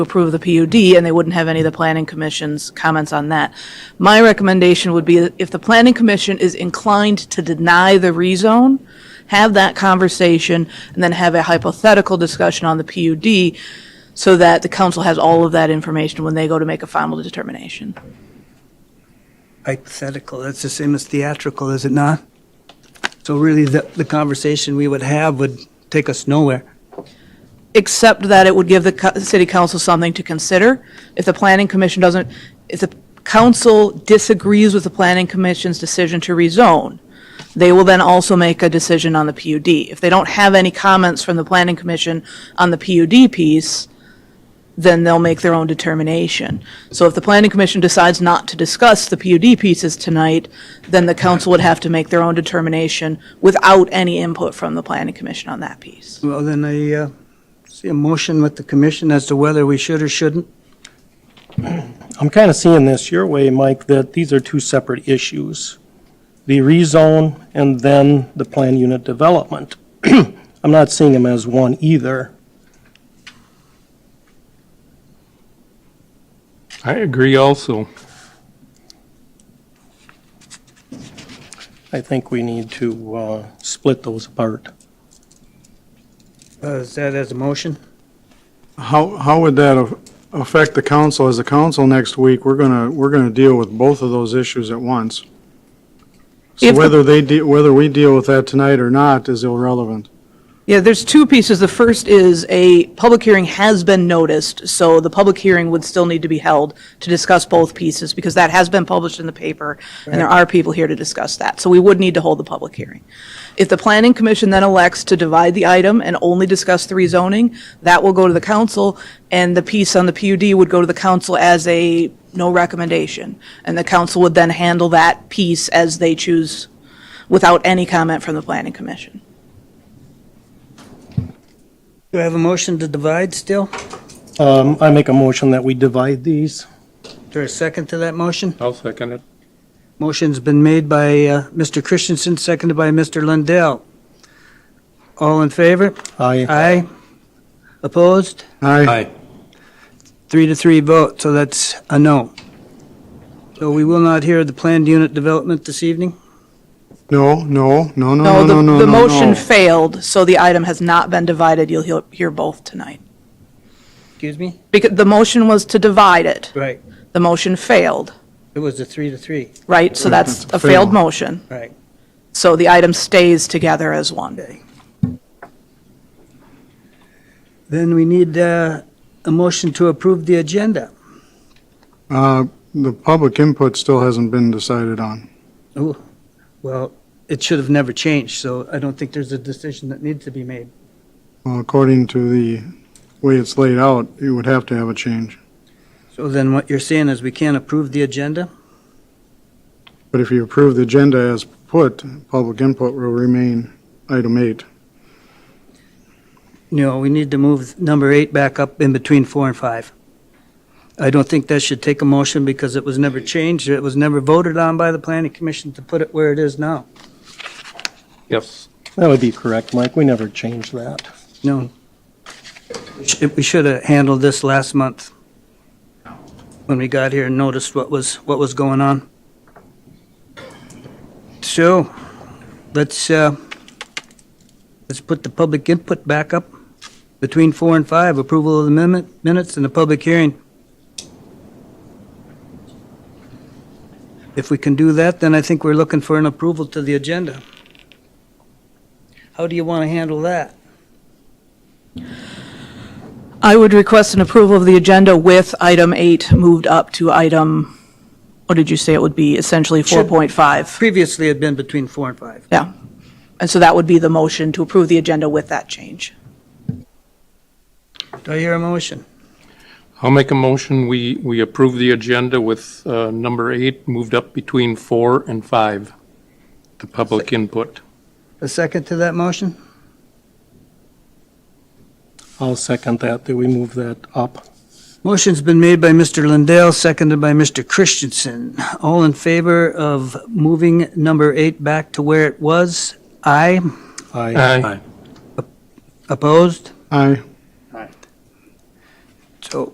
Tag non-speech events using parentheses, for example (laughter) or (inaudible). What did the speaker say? approve the PUD, and they wouldn't have any of the planning commission's comments on that. My recommendation would be that if the planning commission is inclined to deny the rezone, have that conversation, and then have a hypothetical discussion on the PUD so that the council has all of that information when they go to make a final determination. hypothetical. That's the same as theatrical, is it not? So really, the, the conversation we would have would take us nowhere. except that it would give the co- city council something to consider. If the planning commission doesn't, if the council disagrees with the planning commission's decision to rezone, they will then also make a decision on the PUD. If they don't have any comments from the planning commission on the PUD piece, then they'll make their own determination. So if the planning commission decides not to discuss the PUD pieces tonight, then the council would have to make their own determination without any input from the planning commission on that piece. Well, then I, uh, see a motion with the commission as to whether we should or shouldn't. I'm kind of seeing this your way, Mike, that these are two separate issues. The rezone and then the plan unit development. (clears throat) I'm not seeing them as one either. I agree also. I think we need to uh, split those apart. Uh, is that as a motion? How, how would that af- affect the council? As a council next week, we're gonna, we're gonna deal with both of those issues at once. So If the- whether they, de- whether we deal with that tonight or not is irrelevant. Yeah, there's two pieces. The first is a public hearing has been noticed, so the public hearing would still need to be held to discuss both pieces because that has been published in the paper and there are people here to discuss that. So we would need to hold the public hearing. If the planning commission then elects to divide the item and only discuss the rezoning, that will go to the council and the piece on the PUD would go to the council as a no recommendation. And the council would then handle that piece as they choose without any comment from the planning commission. Do I have a motion to divide still? Um, I make a motion that we divide these. Is there a second to that motion? I'll second it. Motion's been made by, uh, Mr. Christensen, seconded by Mr. Lundell. All in favor? I, Aye. Opposed? Aye. Three to three vote, so that's a no. So we will not hear the planned unit development this evening? No, no, no, no, No, no, the, no, no, the no, motion no. failed, so the item has not been divided. You'll hear, hear both tonight. Excuse me? Because the motion was to divide it. Right. The motion failed, It was a three to three. right? So that's It's a a failed fail. motion. Right. So the item stays together as one. Then we need uh, a motion to approve the agenda. Uh, the public input still hasn't been decided on. Well, it should have never changed, so I don't think there's a decision that needs to be made. Well, according to the way it's laid out, you would have to have a change. So then what you're saying is we can't approve the agenda? But if you approve the agenda as put, public input will remain item eight. No, we need to move number eight back up in between four and five. I don't think that should take a motion because it was never changed, it was never voted on by the planning commission to put it where it is now. Yes. that would be correct, Mike. We never changed that. No. We sh- We should have handled this last month when we got here and noticed what was, what was going on. So, let's, uh, let's put the public input back up between four and five, approval of the amendment, minutes and the public hearing. If we can do that, then I think we're looking for an approval to the agenda. How do you want to handle that? I would request an approval of the agenda with item eight moved up to item, what did you say it would be? Essentially Should- 4.5. Previously had been between four and five. Yeah. And so that would be the motion to approve the agenda with that change. Do I hear a motion? I'll make a motion. We, we approve the agenda with uh, number eight moved up between four and five, the public input. A second to that motion? I'll second that, that we move that up. Motion's been made by Mr. Lindell, seconded by Mr. Christensen. All in favor of moving number eight back to where it was? Aye. I, Aye. Opposed? Aye.